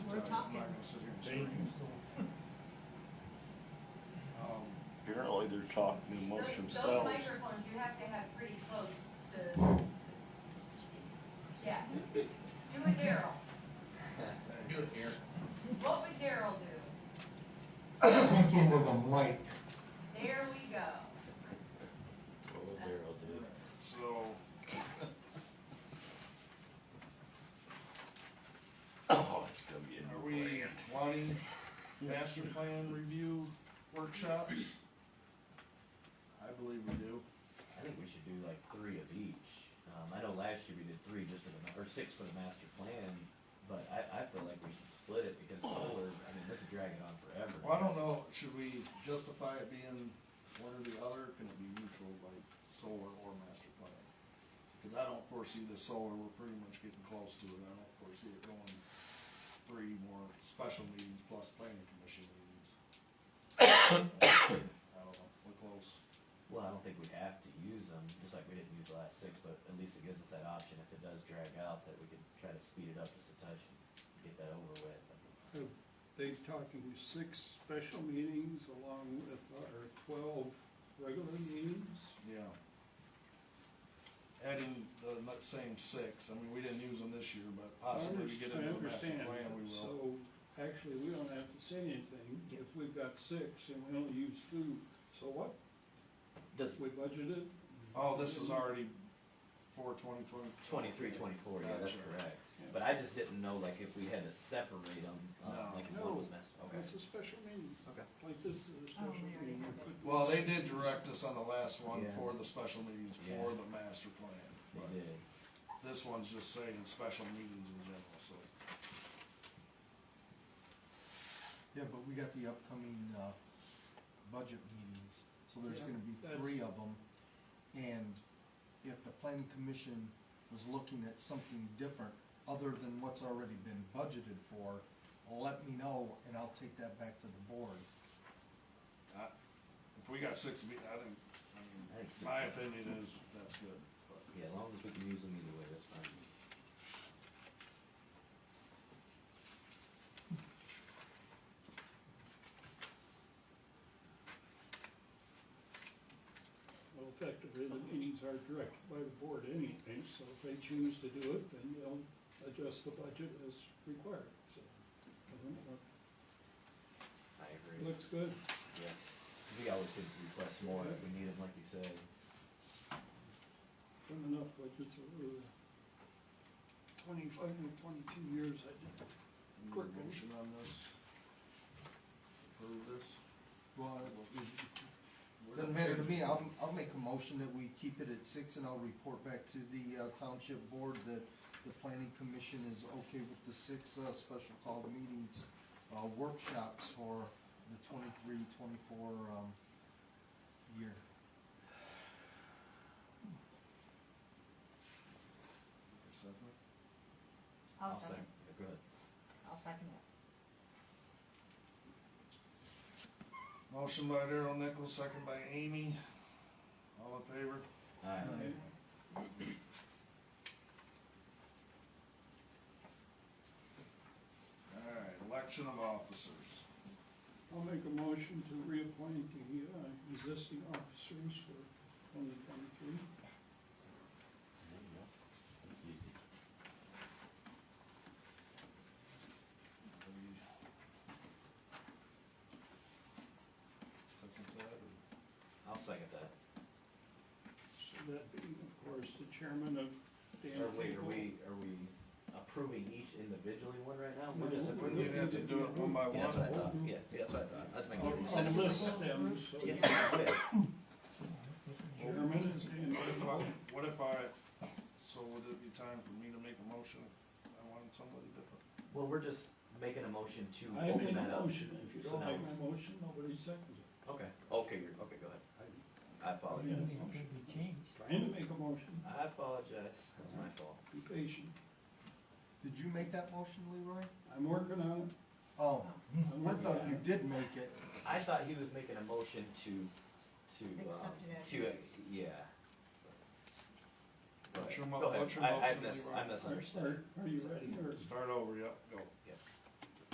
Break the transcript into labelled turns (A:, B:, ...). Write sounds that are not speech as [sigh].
A: we're
B: I'm
A: talking.
B: not gonna sit here and
C: They-
B: scream. Um,
D: Apparently they're talking amongst
E: Those- Those
D: themselves.
E: microphones, you have to have pretty close to, to, yeah. Do a Daryl.
C: Do it here.
E: What would Daryl do?
B: Something with a mic,
E: There we go.
D: Oh, Daryl did.
B: so,
D: Oh, it's gonna be
B: are
D: a new
B: we
D: plan.
B: wanting master plan review workshops?
F: I believe we do.
G: I think we should do like three of each. Um, I know last year we did three just for the, ma- or six for the master plan, but I, I feel like we should split it because solar, I mean, this is dragging on forever.
B: Well, I don't know, should we justify it being one or the other, can it be neutral, like solar or master plan? Cause I don't foresee the solar, we're pretty much getting close to it, I don't foresee it going three more special meetings plus planning commission meetings. [coughs] I don't know, we're close.
G: Well, I don't think we have to use them, just like we didn't use the last six, but at least it gives us that option if it does drag out, that we could try to speed it up just a touch and get that over with.
H: They talking six special meetings along with our twelve regular meetings?
B: Yeah. Adding the mu- same six, I mean, we didn't use them this year, but
H: I
B: possibly we get
H: understand-
B: into a master plan,
H: I
B: we will.
H: understand, so actually, we don't have to say anything, if we've got six and we only use two, so what,
G: Does
H: we budgeted?
B: Oh, this is already for twenty twenty?
G: twenty-three, twenty-four, yeah, that's
B: Gotcha.
G: correct. But I just didn't know like if we had to separate them, um,
B: No.
G: like if one was master, okay.
H: That's a special meeting,
G: Okay.
H: like this is a special
A: we already
H: meeting.
A: had that.
B: Well, they did direct us on the last one
G: Yeah.
B: for the special meetings for
G: Yeah.
B: the master plan.
G: They
B: but
G: did.
B: This one's just saying special meetings in general, so.
F: Yeah, but we got the upcoming, uh, budget meetings, so there's
H: Yeah,
F: gonna be
H: that's-
F: three of them. And if the planning commission was looking at something different, other than what's already been budgeted for, let me know and I'll take that back to the board.
B: I, if we got six meetings, I think, I
G: I
B: mean,
G: think six
B: my
G: is-
B: opinion is that's good, but.
G: Yeah, as long as we can use them either way, that's fine.
H: Well, effectively, the meetings are directed by the board anyway, so if they choose to do it, then they'll adjust the budget as required, so. I don't know.
G: I agree.
H: Looks good.
G: Yeah. We always could request more if we need them, like you said.
H: Done enough budgets over twenty-five or twenty-two years I did.
B: Need a
H: Quick.
B: Motion on this? Approve this?
F: Well, doesn't matter to me, I'll, I'll make a motion that we keep it at six and I'll report back to the uh, township board that the planning commission is okay with the six, uh, special call meetings, uh, workshops for the twenty-three, twenty-four, um, year.
B: Second?
A: I'll second,
G: Yeah, Go ahead.
A: I'll second it.
B: Motion by Daryl Nichols, second by Amy. All in favor?
G: Alright.
F: Aye.
B: Alright, election of officers.
H: I'll make a motion to reappoint the uh, existing officers for twenty
D: There
H: twenty-three.
D: you go. That's easy.
B: Second side, or?
G: I'll second that.
H: So that being, of course, the chairman of Dan
G: Or wait, are
H: Cable.
G: we, are we approving each individually one right now?
H: No,
G: We're just
H: we're
G: approving.
B: Wouldn't you have to do it one by
G: Yeah, that's what I
B: one?
G: thought, yeah, yeah, Uh, that's what I thought, I was making sure you
H: I'll-
G: said
H: I'll
G: it.
H: list them, so
G: Yeah,
H: the
G: yeah.
H: chairman is Dan
B: What if
H: Cable.
B: I, what if I, so would it be time for me to make a motion if I wanted somebody different?
G: Well, we're just making a motion
H: I
G: to
H: made
G: open that
H: a
G: up.
H: motion, if you
G: So
H: don't
G: now
H: make
G: it's-
H: my motion, nobody seconds it.
G: Okay, okay, you're, okay, go ahead. I apologize.
H: Trying to make a motion,
G: I apologize, that's my fault.
H: be patient,
F: Did you make that motion, Leroy?
H: I'm working on it.
F: Oh,
H: I'm
F: I
H: working
F: thought
H: on
F: you
H: it.
F: did make it.
G: I thought he was making a motion to, to, um,
A: Accept it as
G: to,
A: is.
G: yeah. Go
B: What's
G: ahead.
B: your mo-
G: Go ahead.
B: what's your
G: I- I
B: motion,
G: mis-
B: Leroy?
G: I misunderstood.
H: Are are you ready, or?
B: Start over, yep, go.